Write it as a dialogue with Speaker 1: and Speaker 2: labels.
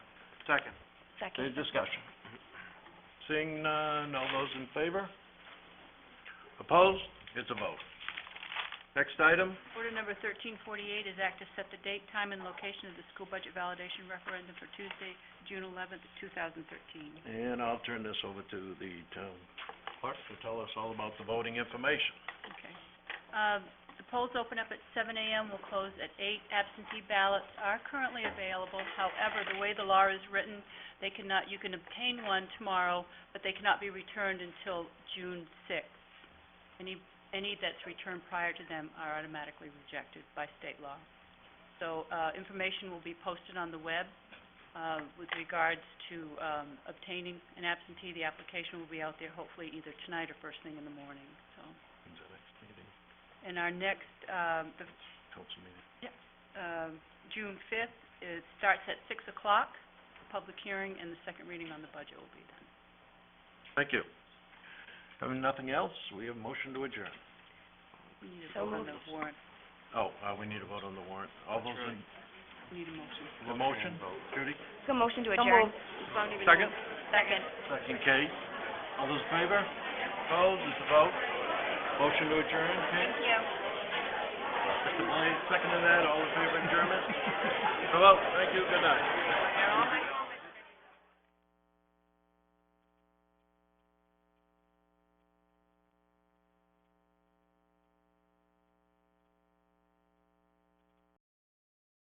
Speaker 1: Second. Any
Speaker 2: Second.
Speaker 1: discussion? Seeing none, all those in favor? Opposed? It's a vote. Next item?
Speaker 2: Order number thirteen forty-eight is act to set the date, time, and location of the school budget validation referendum for Tuesday, June eleventh, two thousand thirteen.
Speaker 1: And I'll turn this over to the town clerk to tell us all about the voting information.
Speaker 2: Okay. Um, The polls open up at seven AM, will close at eight. Absentee ballots are currently available. However, the way the law is written, they cannot, you can obtain one tomorrow, but they cannot be returned until June sixth. Any, any that's returned prior to them are automatically rejected by state law. So, uh, information will be posted on the web, uh, with regards to, um, obtaining an absentee. The application will be out there hopefully either tonight or first thing in the morning, so.
Speaker 1: When's the next meeting?
Speaker 2: And our next, um, the,
Speaker 1: Council meeting.
Speaker 2: um, June fifth, it starts at six o'clock, public hearing, and the second reading on the budget will be then.
Speaker 1: Thank you. Having nothing else, we have motion to adjourn.
Speaker 2: We need a
Speaker 1: So
Speaker 2: vote on the
Speaker 1: moved.
Speaker 2: warrant,
Speaker 1: Oh, uh, we need to vote on the warrant. All those in,
Speaker 2: we need a motion.
Speaker 1: the motion? Judy?
Speaker 2: So motion to
Speaker 1: adjourn. Second?
Speaker 2: Second.
Speaker 1: Second, Kate. All those in favor? Opposed? It's a vote. Motion to adjourn, Kate?
Speaker 2: Yeah.
Speaker 1: Mr. Blaine, second to that. All in favor of adjournment? Hello, thank you, good night.
Speaker 2: They're all right.